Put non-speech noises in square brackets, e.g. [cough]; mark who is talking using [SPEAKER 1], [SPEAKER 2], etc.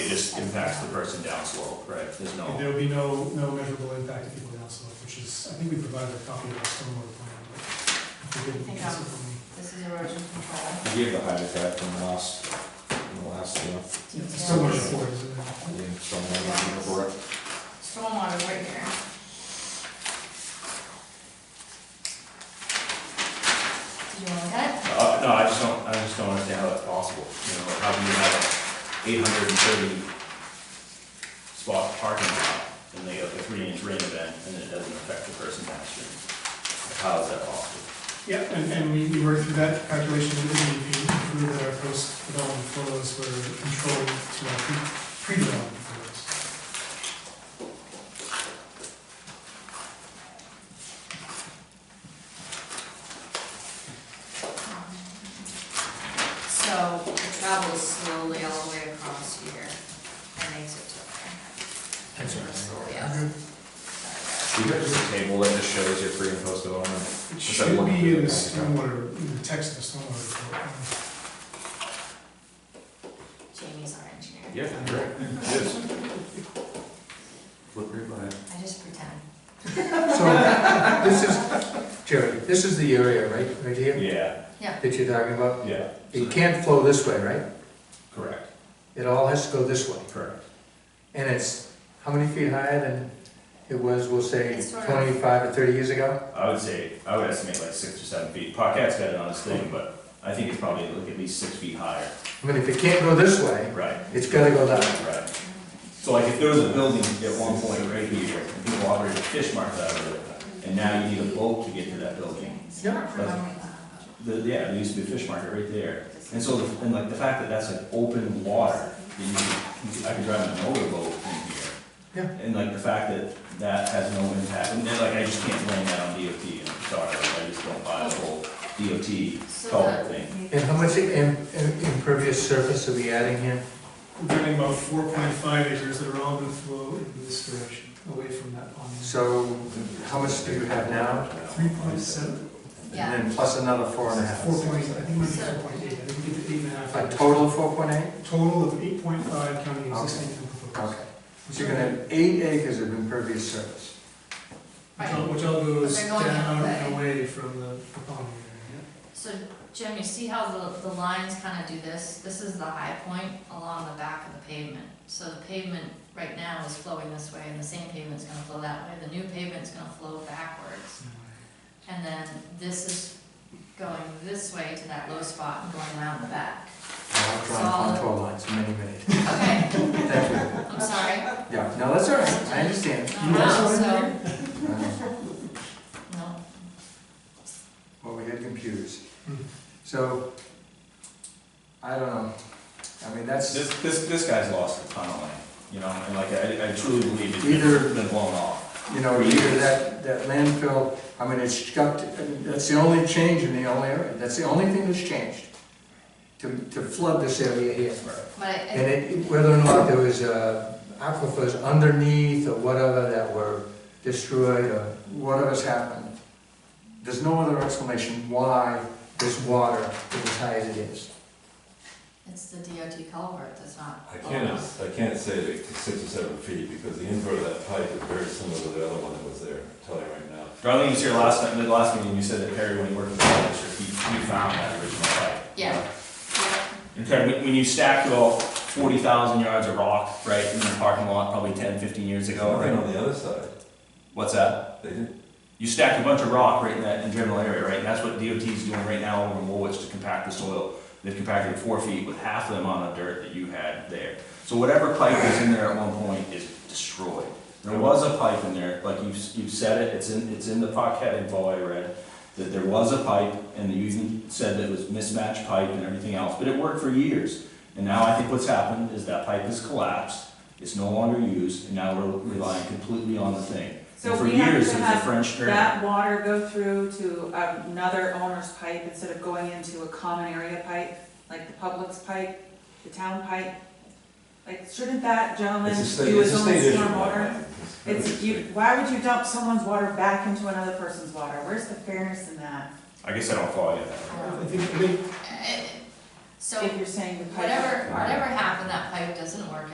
[SPEAKER 1] impacts the person downslope, right? There's
[SPEAKER 2] And
[SPEAKER 1] no,
[SPEAKER 2] There'll be no, no measurable impact if you go down slope, which is, I think we provided a copy of our stormwater plan. but if you didn't,
[SPEAKER 3] Think
[SPEAKER 2] that's
[SPEAKER 3] I'll-
[SPEAKER 2] it for me.
[SPEAKER 3] This is erosion control.
[SPEAKER 4] You gave the height of that from the last, from the last, you know,
[SPEAKER 2] Yeah, It's
[SPEAKER 3] Yeah.
[SPEAKER 2] so much for it, isn't it?
[SPEAKER 4] you know, somewhere in the
[SPEAKER 3] Stormwater right here. Do you want that?
[SPEAKER 1] uh, no, I just don't, I just don't understand how that's possible. You know, how do you have an eight hundred and thirty spot parking lot and they have a three inch rain event and it doesn't affect the person downstream? How is that possible?
[SPEAKER 2] Yeah, and, and we, we worked through that calculation with the DEP, through that our post-development flows were controlled to our pre- pre-development flows.
[SPEAKER 3] So it travels slowly all the way across here and makes it to there. Slowly up. Sorry,
[SPEAKER 4] You guys have a table that just shows your pre and post development.
[SPEAKER 2] It
[SPEAKER 4] Is that
[SPEAKER 2] should
[SPEAKER 4] one
[SPEAKER 2] be in
[SPEAKER 4] thing?
[SPEAKER 2] the stormwater, in the text of the stormwater report.
[SPEAKER 3] guys. Jamie's our engineer.
[SPEAKER 4] Yeah, correct. It is. Flip right by it.
[SPEAKER 3] I just pretend.
[SPEAKER 5] So, this is, Jerry, this is the area, right, right here,
[SPEAKER 1] Yeah,
[SPEAKER 5] that you're talking about?
[SPEAKER 1] yeah,
[SPEAKER 5] It can't flow this way, right?
[SPEAKER 1] correct,
[SPEAKER 5] It all has to go this way.
[SPEAKER 1] correct.
[SPEAKER 5] And it's, how many feet higher than it was, we'll say,
[SPEAKER 3] It's sort of-
[SPEAKER 5] twenty-five or thirty years ago?
[SPEAKER 1] I would say, I would estimate like six or seven feet. Paquette's got it on his thing, but I think it's probably like at least six feet higher.
[SPEAKER 5] I mean, if it can't go this way,
[SPEAKER 1] Right.
[SPEAKER 5] it's gotta go that way.
[SPEAKER 1] Right. So like if there was a building at one point right here, and people operated fish markets out of it, and now you need a boat to get to that building.
[SPEAKER 3] Not
[SPEAKER 1] That's-
[SPEAKER 3] remembering
[SPEAKER 1] The, yeah, there used to be a fish market right there. And so, the- and like the fact that that's like open water, that you can, I could drive an motorboat in here. Yeah. And like the fact that that has no impact, and then like I just can't blame that on DOT, and I'm sorry, like I just don't buy the whole
[SPEAKER 3] that.
[SPEAKER 1] DOT
[SPEAKER 3] So
[SPEAKER 1] culvert
[SPEAKER 3] the,
[SPEAKER 1] thing.
[SPEAKER 5] And how much im- im- impervious surface are we adding here?
[SPEAKER 2] We're getting about four point five acres that are all gonna flow in this direction, away from that pond.
[SPEAKER 5] So, how much do you have now?
[SPEAKER 2] Three point seven,
[SPEAKER 3] yeah.
[SPEAKER 5] And then plus another four and a half.
[SPEAKER 2] four point, I think we four point eight, I think we did eight and a half.
[SPEAKER 5] A total of four point eight?
[SPEAKER 2] Total of eight point five counting existing and proposed.
[SPEAKER 5] Okay. So you're gonna have eight acres of impervious surface.
[SPEAKER 2] Which all- Which all goes
[SPEAKER 3] They're going
[SPEAKER 2] down
[SPEAKER 3] that
[SPEAKER 2] and away from the proponent area.
[SPEAKER 3] So Jim, you see how the, the lines kind of do this? This is the high point along the back of the pavement. So the pavement right now is flowing this way and the same pavement's gonna flow that way. The new pavement's gonna flow backwards. And then this is going this way to that low spot and going around the back.
[SPEAKER 5] I'll draw contour lines in many, many.
[SPEAKER 3] Okay,
[SPEAKER 5] Thank you.
[SPEAKER 3] I'm sorry.
[SPEAKER 5] Yeah, no, that's all right, I understand.
[SPEAKER 3] [laughs] No, no, so,
[SPEAKER 5] Uh,
[SPEAKER 3] no.
[SPEAKER 5] Well, we had computers.
[SPEAKER 2] Hmm.
[SPEAKER 5] So, I don't know, I mean, that's,
[SPEAKER 1] This, this, this guy's lost a ton of land, you know, and like, I, I truly believe it's
[SPEAKER 5] Either-
[SPEAKER 1] been- been blown off.
[SPEAKER 5] you know, either that, that landfill, I mean, it's got, to- that's the only change in the only area, that's the only thing that's changed. To, to flood this area here.
[SPEAKER 3] But I- I,
[SPEAKER 5] And it, whether or not there was, uh, aquifers underneath or whatever that were destroyed or whatever's happened, there's no other explanation why this water is as high as it is.
[SPEAKER 3] it's the DOT culvert that's not.
[SPEAKER 6] I can't, I can't say that it's six or seven feet, because the invert of that pipe is very similar to the other one that was there, I'm telling you right now.
[SPEAKER 1] Darlene was here last night, the last meeting, you said that Perry, when he worked with the district, he, he found that original site.
[SPEAKER 3] Yeah. Yeah.
[SPEAKER 1] In fact, when, when you stack it all, forty thousand yards of rock, right, in the parking lot, probably 10, 15 years ago,
[SPEAKER 6] Right
[SPEAKER 1] right?
[SPEAKER 6] on the other side,
[SPEAKER 1] What's that?
[SPEAKER 6] they didn't,
[SPEAKER 1] You stacked a bunch of rock right in that general area, right? And that's what DOT's doing right now over in Woolwich to compact the soil. They've compacted four feet with half the amount of dirt that you had there. So whatever pipe was in there at one point is destroyed. There was a pipe in there, like you've, you've said it, it's in, it's in the Paquette info I read, that there was a pipe, and you even said that it was mismatched pipe and everything else, but it worked for years. And now I think what's happened is that pipe has collapsed, it's no longer used, and now we're relying completely on the thing.
[SPEAKER 7] So
[SPEAKER 1] And for
[SPEAKER 7] we have
[SPEAKER 1] years,
[SPEAKER 7] to
[SPEAKER 1] it was a
[SPEAKER 7] have
[SPEAKER 1] French term.
[SPEAKER 7] That water go through to another owner's pipe instead of going into a common area pipe, like the public's pipe, the town pipe? Like, shouldn't that gentleman
[SPEAKER 6] it's a state,
[SPEAKER 7] do
[SPEAKER 6] it's
[SPEAKER 7] his
[SPEAKER 6] a
[SPEAKER 7] own
[SPEAKER 6] state issue.
[SPEAKER 7] stormwater?
[SPEAKER 6] man. very
[SPEAKER 7] It's, you,
[SPEAKER 6] state.
[SPEAKER 7] why would you dump someone's water back into another person's water? Where's the fairness in that?
[SPEAKER 1] I guess I don't follow you there.
[SPEAKER 3] Um,
[SPEAKER 2] I think, I think
[SPEAKER 3] So
[SPEAKER 7] If you're saying the pipe.
[SPEAKER 3] whatever, whatever happened, that pipe doesn't work